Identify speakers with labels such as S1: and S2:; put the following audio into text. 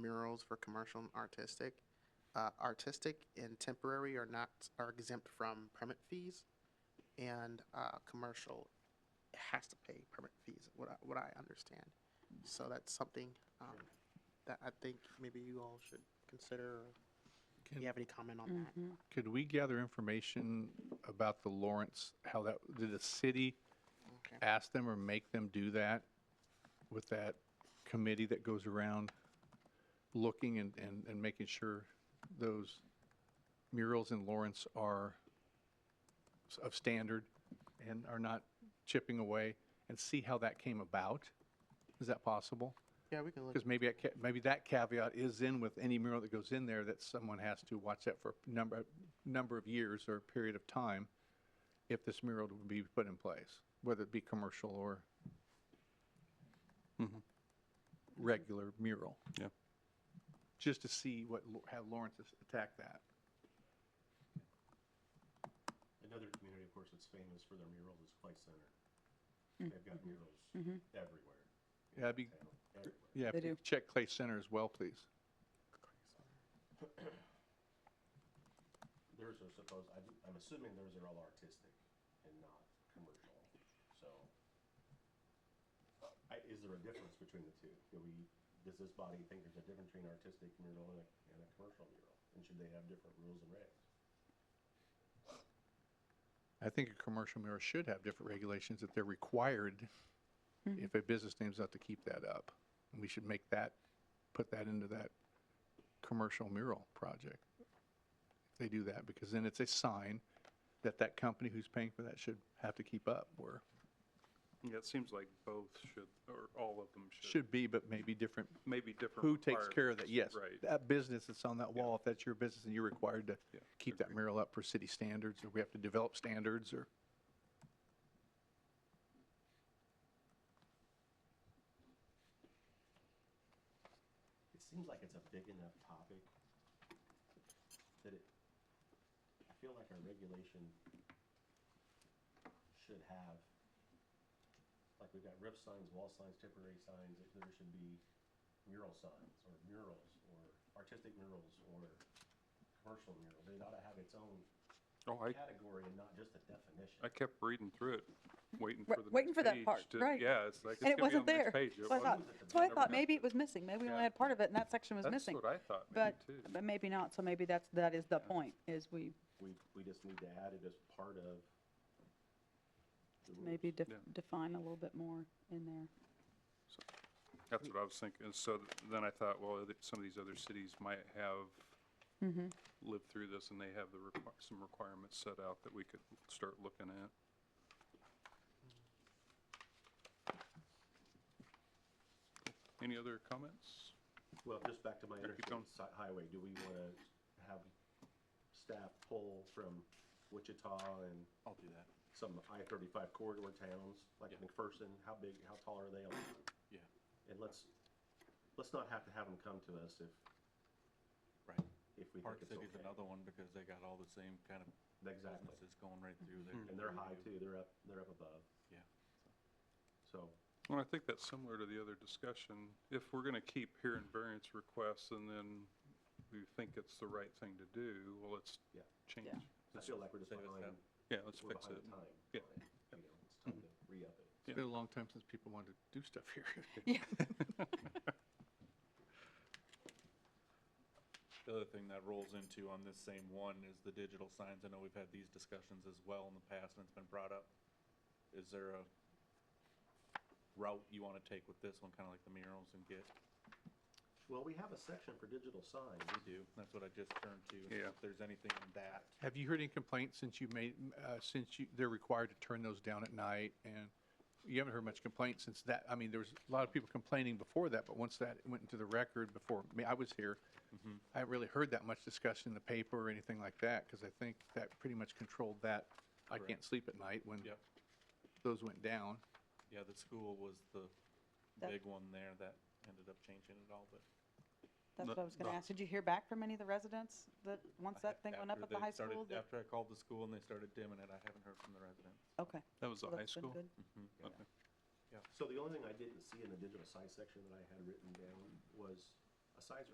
S1: murals for commercial and artistic. Uh, artistic and temporary are not, are exempt from permit fees. And, uh, commercial has to pay permit fees, what I, what I understand. So that's something, um, that I think maybe you all should consider. or Do
S2: Can-
S1: you have any comment on that?
S2: Could we gather information about the Lawrence, how that, did the city
S1: Okay.
S2: ask them or make them do that with that committee that goes around looking and, and, and making sure those murals in Lawrence are s- of standard and are not chipping away and see how that came about? Is that possible?
S1: Yeah, we can look.
S2: Because maybe, that ca- maybe that caveat is in with any mural that goes in there, that someone has to watch that for a number, number of years or a period of time if this mural would be put in place, whether it be commercial or regular mural,
S3: Yeah.
S2: just to see what, Lo- how Lawrence has attacked that.
S4: Another community, of course, that's famous for their murals is Clay Center. They've got murals everywhere,
S2: Yeah, that'd be,
S4: town, everywhere.
S2: yeah, if
S5: They
S2: you
S5: do.
S2: check Clay Center as well, please.
S4: Theirs are supposed, I, do- I'm assuming theirs are all artistic and not commercial, so. I, is there a difference between the two? Do we, does this body think there's a difference between artistic mural and a, and a commercial mural? And should they have different rules and regs?
S2: I think a commercial mural should have different regulations that they're required if a business name's out to keep that up. And we should make that, put that into that commercial mural project. If They do that because then it's a sign that that company who's paying for that should have to keep up or
S3: Yeah, it seems like both should, or all of them should.
S2: should be, but maybe different.
S3: Maybe different.
S2: Who takes care of that? Yes.
S3: requirements. Right.
S2: That business that's on that wall, if that's your business and you're required to
S3: Yeah,
S2: keep that
S3: agree.
S2: mural up for city standards or we have to develop standards or.
S4: It seems like it's a big enough topic that it, I feel like our regulation should have, like we've got rip signs, wall signs, temporary signs, that there should be mural signs or murals or artistic murals or commercial mural. They ought to have its own
S3: Oh, I,
S4: category and not just a definition.
S3: I kept reading through it, waiting
S5: Right,
S3: for the
S5: waiting
S3: next
S5: for that
S3: page
S5: part,
S3: to-
S5: right.
S3: Yeah, it's like.
S5: And it
S3: it's gonna
S5: wasn't
S3: be on the
S5: there.
S3: next page. It
S5: So I thought,
S3: wasn't.
S5: so I
S3: Never
S5: thought
S3: happened.
S5: maybe it was missing. Maybe we only
S3: Yeah.
S5: had part of it and that section was
S3: That's
S5: missing.
S3: what I thought, maybe
S5: But,
S3: too.
S5: but maybe not. So maybe that's, that is the point, is we
S4: We, we just need to add it as part of the rules.
S5: maybe def-
S3: Yeah.
S5: define a little bit more in there.
S3: So, That's what I was thinking. And so th- then I thought, well, other- some of these other cities might have lived through this and they have the, requi- some requirements set out that we could start looking at. Any other comments?
S4: Well, just back to my
S3: Sure, keep going.
S4: interstate si- highway, do we want to have staff pull from Wichita and
S6: I'll do that,
S4: some I-35 corridor towns, like
S6: Yeah.
S4: McPherson, how big, how tall are they?
S6: yeah,
S4: And let's, let's not have to have them come to us if,
S6: right.
S4: if we think
S6: Park
S4: it's
S6: City's
S4: okay.
S6: another one because they got all the same kind of
S4: Exactly.
S6: businesses going right through there.
S4: And they're high too, they're up, they're up above,
S6: Yeah.
S4: so,
S3: Well, I think that's similar to the other discussion. If we're going to keep hearing variance requests and then we think it's the right thing to do, well, let's
S4: yeah.
S3: change.
S5: Yeah.
S4: I feel like we're just
S6: Save us
S4: behind,
S3: Yeah, let's
S4: we're
S3: fix
S4: behind
S3: it.
S4: the time. on
S3: Yeah.
S4: it, you know, It's time to re-up it.
S2: It's been a long time since people wanted to do stuff here.
S3: Hmm.
S6: The other thing that rolls into on this same one is the digital signs. I know we've had these discussions as well in the past and it's been brought up. Is there a route you want to take with this one, kind of like the murals and get?
S4: Well, we have a section for digital signs,
S6: We do. That's what I just turned to.
S3: Yeah.
S6: If there's anything in that.
S2: Have you heard any complaints since you made, uh, since you, they're required to turn those down at night? And you haven't heard much complaint since that, I mean, there was a lot of people complaining before that, but once that went into the record before, me, I was here,
S6: Mm-hmm.
S2: I haven't really heard that much discussion in the paper or anything like that, because I think that pretty much controlled that. I can't
S6: Correct.
S2: sleep at night when
S6: Yep.
S2: those went down.
S6: Yeah, the school was the
S5: That-
S6: big one there that ended up changing it all, but.
S5: That's
S3: No-
S5: what I was going to
S3: no.
S5: ask. Did you hear back from any of the residents that, once that thing went up
S6: After
S5: at the
S6: they
S5: high
S6: started-
S5: school? that-
S6: After I called the school and they started dimming it, I haven't heard from the residents.
S5: Okay.
S3: That was the
S5: Well,
S3: high
S5: that's been
S3: school?
S5: good.
S6: Mm-hmm.
S4: Yeah.
S3: Okay.
S4: So the only thing I didn't see in the digital size section that I had written down was a size